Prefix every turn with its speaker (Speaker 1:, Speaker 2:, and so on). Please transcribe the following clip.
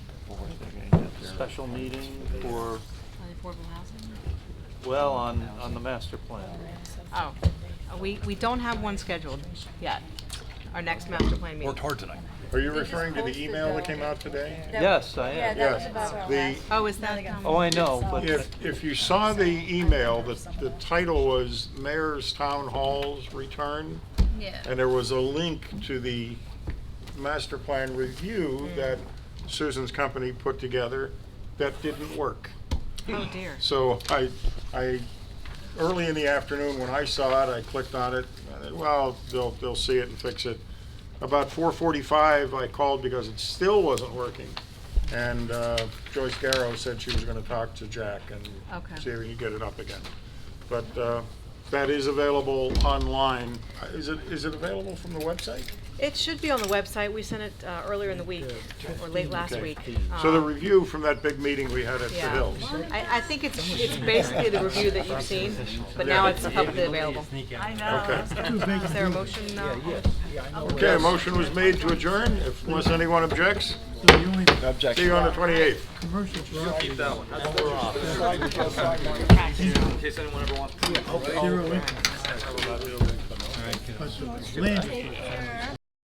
Speaker 1: special meeting for,
Speaker 2: On affordable housing?
Speaker 1: well, on, on the master plan.
Speaker 2: Oh, uh, we, we don't have one scheduled yet, our next master plan meeting.
Speaker 3: Worked hard tonight.
Speaker 4: Are you referring to the email that came out today?
Speaker 1: Yes, I am.
Speaker 5: That was
Speaker 4: Yes,
Speaker 5: about
Speaker 4: the,
Speaker 2: Oh, is that, um,
Speaker 1: Oh, I know, but
Speaker 4: if, if you saw the email, the, the title was Mayor's Town Hall's Return.
Speaker 5: Yeah.
Speaker 4: And there was a link to the master plan review that Susan's company put together that didn't work.
Speaker 2: oh dear.
Speaker 4: So I, I, early in the afternoon, when I saw it, I clicked on it, and I said, well, they'll, they'll see it and fix it. About four forty-five, I called because it still wasn't working. And uh, Joyce Garrow said she was gonna talk to Jack and
Speaker 2: Okay.
Speaker 4: see if he could get it up again. But uh, that is available online. Uh, Is it, is it available from the website?
Speaker 2: It should be on the website, we sent it uh, earlier in the week, or late last
Speaker 4: Okay.
Speaker 2: week.
Speaker 4: So the
Speaker 2: Um,
Speaker 4: review from that big meeting we had at the
Speaker 2: yeah.
Speaker 4: Hills.
Speaker 2: I, I think it's, it's basically the review that you've seen, but now it's publicly available.
Speaker 4: Okay.
Speaker 2: Is there a motion? uh,
Speaker 4: Okay, a motion was made to adjourn, if- unless anyone objects. See you on the 28th.